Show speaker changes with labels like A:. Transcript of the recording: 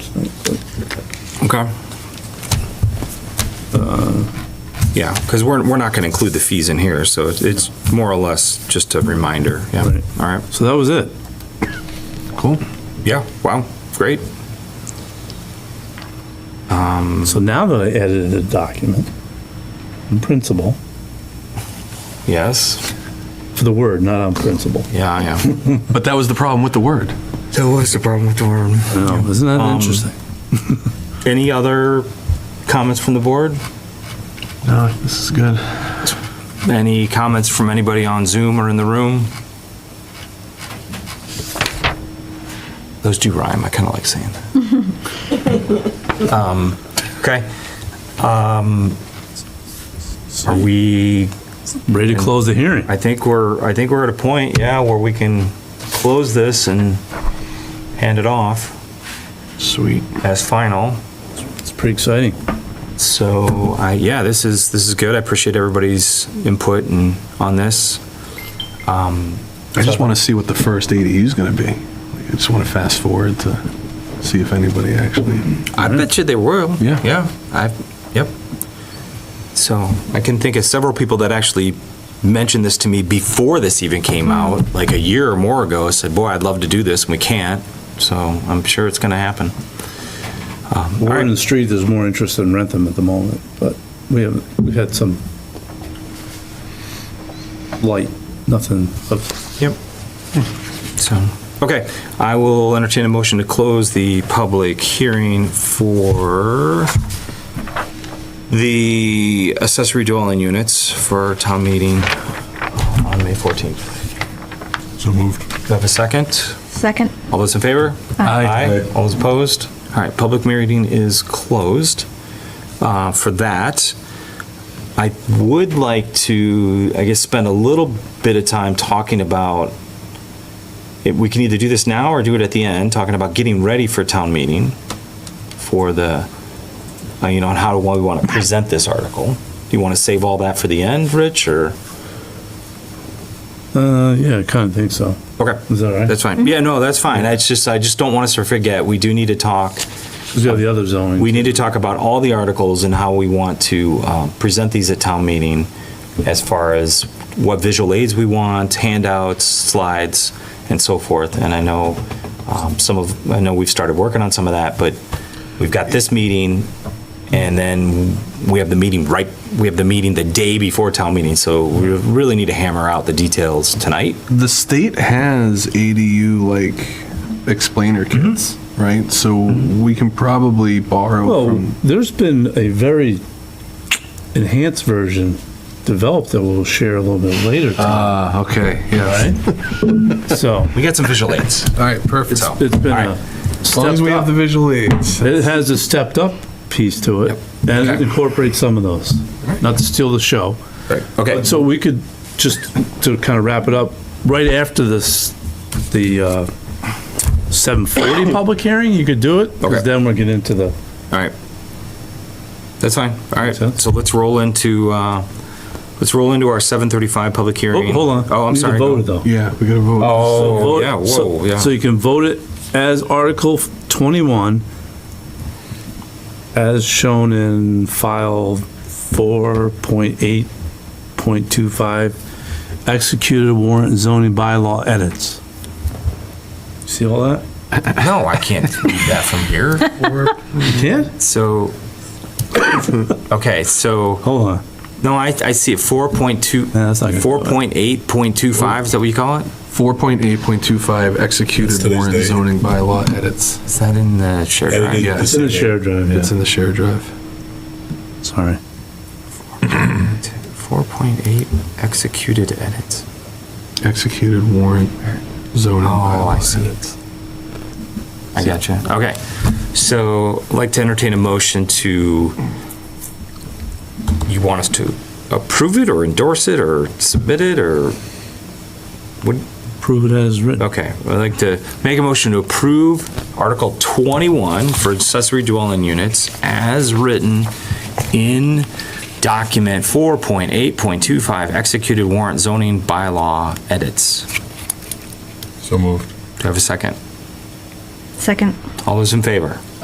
A: Okay. Uh, Yeah, because we're, we're not going to include the fees in here, so it's- it's more or less just a reminder. Yeah,
B: Right.
A: all right.
B: So that was it. Cool.
A: Yeah, wow, great.
B: So now that I edited a document, on principle,
A: Yes.
B: for the word, not on principle.
A: Yeah, yeah.
C: But that was the problem with the word.
A: That was the problem with the worm.
B: Oh, isn't that interesting?
A: Any other comments from the board?
C: No, this is good.
A: Any comments from anybody on Zoom or in the room? Those do rhyme, I kind of like saying that. Um, Okay. Um, Are we
B: Ready to close the hearing?
A: I think we're, I think we're at a point, yeah, where we can close this and hand it off
C: Sweet.
A: as final.
B: It's pretty exciting.
A: So I, yeah, this is, this is good. I appreciate everybody's input and on this.
C: I just want to see what the first ADU is going to be. Like, I just want to fast forward to see if anybody actually.
A: I bet you they will.
C: Yeah.
A: Yeah, I, yep. So I can think of several people that actually mentioned this to me before this even came out, like a year or more ago, said, boy, I'd love to do this and we can't. So I'm sure it's gonna happen.
B: We're in the street, there's more interest in Rentham at the moment, but we have, we've had some light, nothing of,
A: Yep. So, okay, I will entertain a motion to close the public hearing for the accessory dwelling units for town meeting on May 14th.
C: So moved.
A: Do I have a second?
D: Second.
A: All those in favor?
D: Aye.
A: All those opposed? All right, public meeting is closed uh, for that. I would like to, I guess, spend a little bit of time talking about, if we can either do this now or do it at the end, talking about getting ready for town meeting for the, uh, you know, and how we want to present this article. Do you want to save all that for the end, Rich, or?
B: uh, yeah, I kind of think so.
A: Okay.
B: Is that all right?
A: That's fine. Yeah, no, that's fine. It's just, I just don't want us to forget, we do need to talk.
B: 'Cause we have the other zoning.
A: We need to talk about all the articles and how we want to uh, present these at town meeting as far as what visual aids we want, handouts, slides, and so forth. And I know um, some of, I know we've started working on some of that, but we've got this meeting and then we have the meeting right, we have the meeting the day before town meeting. So we really need to hammer out the details tonight.
C: The state has ADU like explainer kits, right? So we can probably borrow
B: Well,
C: from.
B: there's been a very enhanced version developed that we'll share a little bit later,
A: Uh,
C: Ah, okay. Yeah.
B: right? So,
A: We got some visual aids.
C: All right. Perfect.
A: So-
B: it's been
A: All
B: a
A: right.
C: as long as we have
B: stepped
C: the
B: up,
C: visual aids.
B: it has a stepped up piece to it and it incorporates some of those, not to steal the show.
A: Okay.
B: But So we could, just to kind of wrap it up, right after this, the uh, 7:40 public hearing, you could do it,
A: Okay.
B: because then we'll get into the,
A: All right. That's fine. All right.
B: Makes sense.
A: So let's roll into, uh, let's roll into our 7:35 public hearing.
B: Oh, hold on.
A: Oh, I'm
B: We need to
A: sorry.
B: vote
A: Go-
B: it, though.
C: Yeah, we got to vote.
B: So
A: Oh,
B: vote-
A: yeah,
B: so-
A: whoa, yeah.
B: So you can vote it as Article 21, as shown in file 4.8.25, executed warrant zoning bylaw edits. See all that?
A: No, I can't read that from here.
B: You can?
A: So, okay, so,
B: Hold on.
A: no, I, I see it, 4.2,
B: No, that's not gonna do it.
A: 4.8.25, is that what you call it?
C: 4.8.25 executed warrant zoning bylaw edits.
A: Is that in the shared drive?
C: Yeah,
B: It's in the shared drive,
C: it's
B: yeah.
C: in the share drive.
B: Sorry.
A: 4.8 executed edits.
C: Executed warrant zoning
A: Oh, I
C: bylaw
A: see.
C: edits.
A: I gotcha. Okay. So, I'd like to entertain a motion to, you want us to approve it or endorse it or submit it or, what,
B: Prove it as written.
A: okay. I'd like to make a motion to approve Article 21 for accessory dwelling units as written in document 4.8.25 executed warrant zoning bylaw edits. Do
E: So moved.
A: I have a second?
D: Second.
A: All those in favor?